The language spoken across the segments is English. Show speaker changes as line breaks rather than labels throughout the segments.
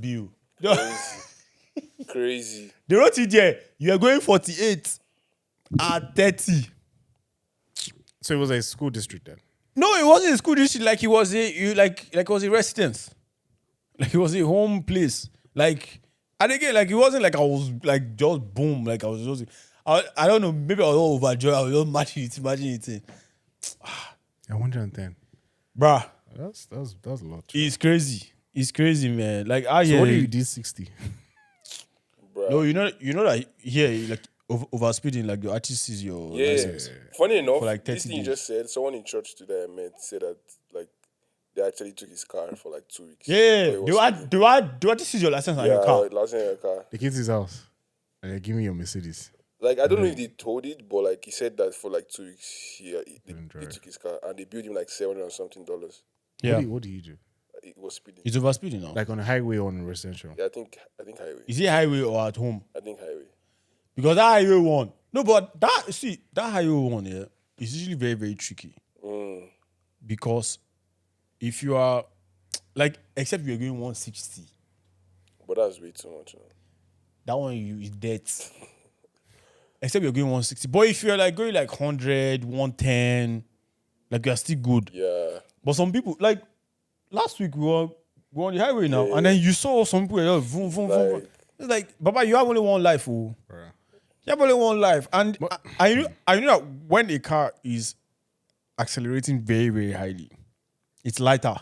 bill.
Crazy.
they wrote it there you are going forty-eight at thirty.
So it was a school district then.
no it wasn't a school district like it was a you like like it was a residence like it was a home place like and again like it wasn't like i was like just boom like i was just i, I don't know maybe i was all overjoyed i was just matching it matching it in.
I wonder and then.
bruh
That's that's that's a lot.
it's crazy it's crazy man like i
So
hear
what do you did sixty?
Bruh.
no you know you know that here like over, over speeding like the artist sees your
yeah.
license
Funny enough,
like
this
30
thing you
days.
just said, someone in church today I met said that like they actually took his car for like two weeks.
yeah
So it
do
was-
i do i do i see your license on
yeah,
your car
last in your car.
The kid's his house. And they give me your Mercedes.
Like I don't
Mm-hmm.
know if they told it, but like he said that for like two weeks he, uh, he, they,
Didn't
they
drive.
took his car and they billed him like seven hundred something dollars.
What
yeah
do you, what do you do?
It was speeding.
it's over speeding now
Like on a highway or on a residential?
Yeah, I think I think highway.
is it highway or at home
I think highway.
because that highway one no but that see that highway one yeah is usually very very tricky
Mm.
because if you are like except you're going 160
But that's way too much. man.
that one you is dead except you're going 160 but if you're like going like 100 110 like you're still good
Yeah.
but some people like last week we were we were on the highway now
Yeah.
and then you saw some people were just vroom, vroom, vroom, vroom.
Like-
it's like baba you have only one life oh.
Bruh.
Yeah, but only one life. And I, I knew I knew that when a car is accelerating very, very highly, it's lighter.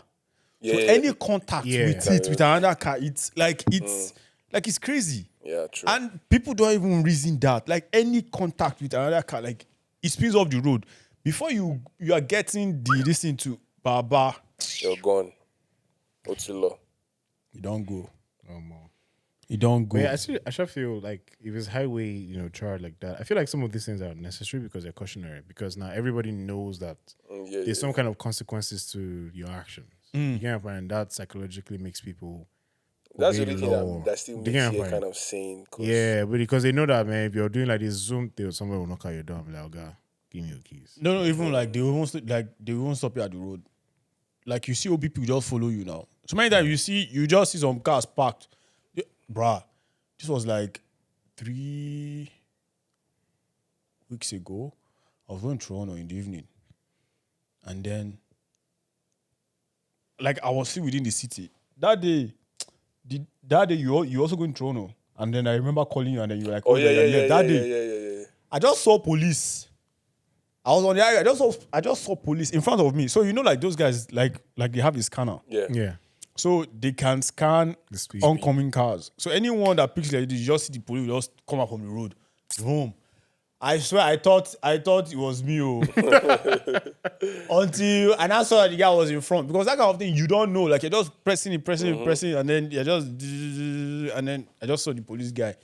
Yeah.
so
yeah,
any contact
Yeah.
with it, with another car, it's like
Mm.
it's like it's crazy.
yeah, true.
And people don't even reason that. Like any contact with another car, like it spins off the road. Before you you are getting the listen to Baba,
You're gone. Otilo.
you don't go.
Oh, more.
You don't go.
But yeah, I still, I still feel like if it's highway, you know, charge like that, I feel like some of these things are necessary because they're cautionary. Because now everybody knows that
Mm, yeah, yeah.
there's some kind of consequences to your actions. You know, and that psychologically makes people.
That's the
obey
only
the
thing
law.
that, that still
Do
makes
you get what I'm
it
saying?
kind of sane. 'cause-
Yeah, but because they know that man, if you're doing like this zoom, they'll somebody will knock at your door and be like, "Oh God, give me your keys."
No, no, even like they won't st- like they won't stop you at the road. Like you see OB people just follow you now. So many times you see you just see some cars parked. Yeah, bruh, this was like three weeks ago. I was going to Toronto in the evening. And then like I was still within the city. That day, the, that day you al- you also going to Toronto. And then I remember calling you and then you were like,
Oh yeah,
you're
yeah, yeah,
late.
yeah,
that
yeah,
day.
yeah, yeah, yeah, yeah.
I just saw police. I was on the highway. I just saw I just saw police in front of me. So you know, like those guys, like like they have a scanner,
Yeah.
Yeah,
so they can scan
The speed.
oncoming cars. So anyone that picks like this, you just see the police just come up from the road, boom. I swear, I thought I thought it was me, oh. until and I saw that the guy was in front because that kind of thing you don't know. Like you're just pressing it, pressing it, pressing, it, and then you're just and then I just saw the police guy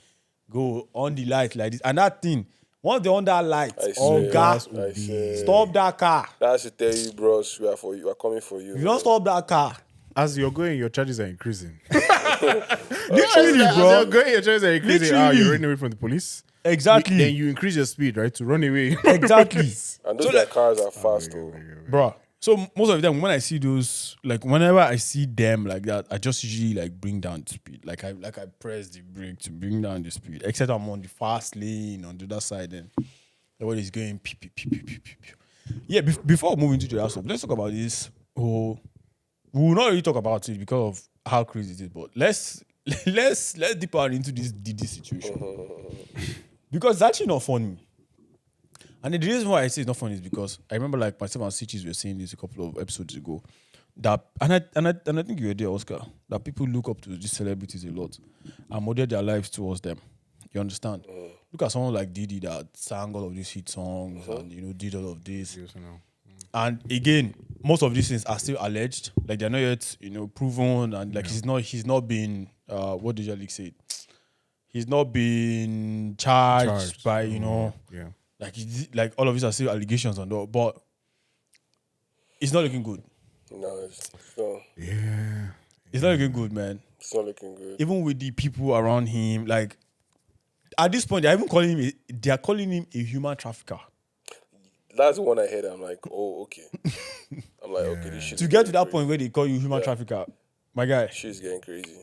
go on the light like this, and that thing once they're on that light,
I
oh
swear,
gas,
I swear.
stop that car.
That's to tell you, bros. We are for you. We are coming for you.
If you don't stop that car,
as you're going, your charges are increasing.
literally,
as
bro.
you're going, your charges are increasing. Ah,
Literally.
you're running away from the police.
Exactly,
Then you increase your speed, right, to run away.
exactly.
And those their cars are fast, though.
Bruh. So m- most of them, when I see those, like whenever I see them like that, I just usually like bring down the speed. Like I like I press the brake to bring down the speed. Except I'm on the fast lane on the other side, and everybody's going pew pew pew pew pew pew. pew. Yeah. Bef- before moving to the last one, let's talk about this. Oh, we will not really talk about it because of how crazy it is. But let's let's let's deep down into this DD situation because it's actually not funny. And the reason why I say it's not funny is because I remember like myself and Sitches were saying this a couple of episodes ago. That and I and I and I think you were there, Oscar. That people look up to these celebrities a lot and model their lives towards them. You understand? Look at someone like Diddy that sang all of these hit songs and you know did all of this. And again, most of these things are still alleged. Like they're not yet, you know, proven and like he's not he's not been uh what did your league say? He's not been charged,
Charged.
by, you know,
Mm, Yeah.
like it's- like all of these are still allegations and all, but it's not looking good.
No, it's, no,
Yeah.
It's not looking good, man.
it's not looking good.
Even with the people around him, like at this point, they're even calling him. A, they are calling him a human trafficker.
That's the one I heard. I'm like, oh, okay. I'm like, okay, this shit.
To
is
get to
getting
that
crazy.
point where they call you human trafficker, my guy,
shit's getting crazy.